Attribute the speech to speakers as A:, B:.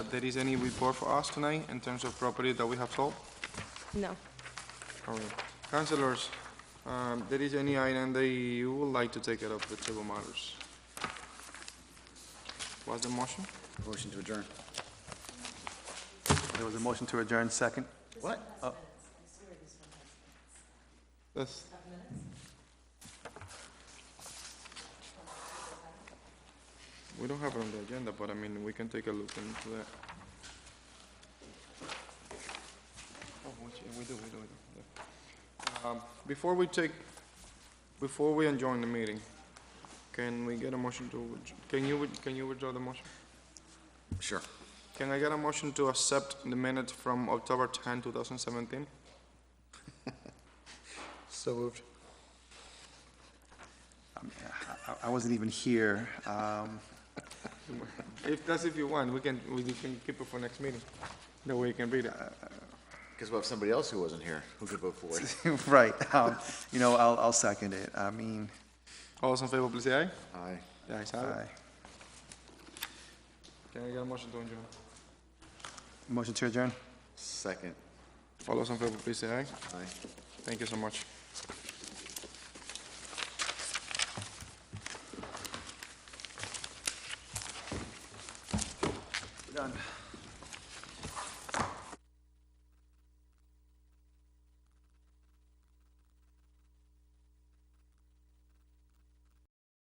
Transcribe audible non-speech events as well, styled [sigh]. A: there is any report for us tonight in terms of property that we have sold?
B: No.
A: All right. Councilors, um, there is any item that you would like to take it up with table matters? What's the motion?
C: Motion to adjourn.
D: There was a motion to adjourn, second.
C: What? Oh,
A: Yes. We don't have it on the agenda, but I mean, we can take a look into that. Oh, which, we do, we do, we do. yeah. Um, Before we take, before we adjourn the meeting, can we get a motion to, withdraw- can you, with- can you withdraw the motion?
C: Sure.
A: Can I get a motion to accept the minutes from October 10, 2017?
C: So moved.
D: Um, I- I wasn't even here. Um, [laughs]
A: If, that's if you want, we can, we can keep it for next meeting, that way you can read it.
C: Because we'll have somebody else who wasn't here who could vote for
D: [laughs]
C: it.
D: Right, um, you know, I'll, I'll second it. I mean,
A: All those in favor, please say aye.
C: Aye.
A: The ayes have
D: I,
A: it. Can I get a motion to adjourn?
D: motion to adjourn?
C: Second.
A: All those in favor, please say aye.
C: Aye.
A: Thank you so much.
D: Done.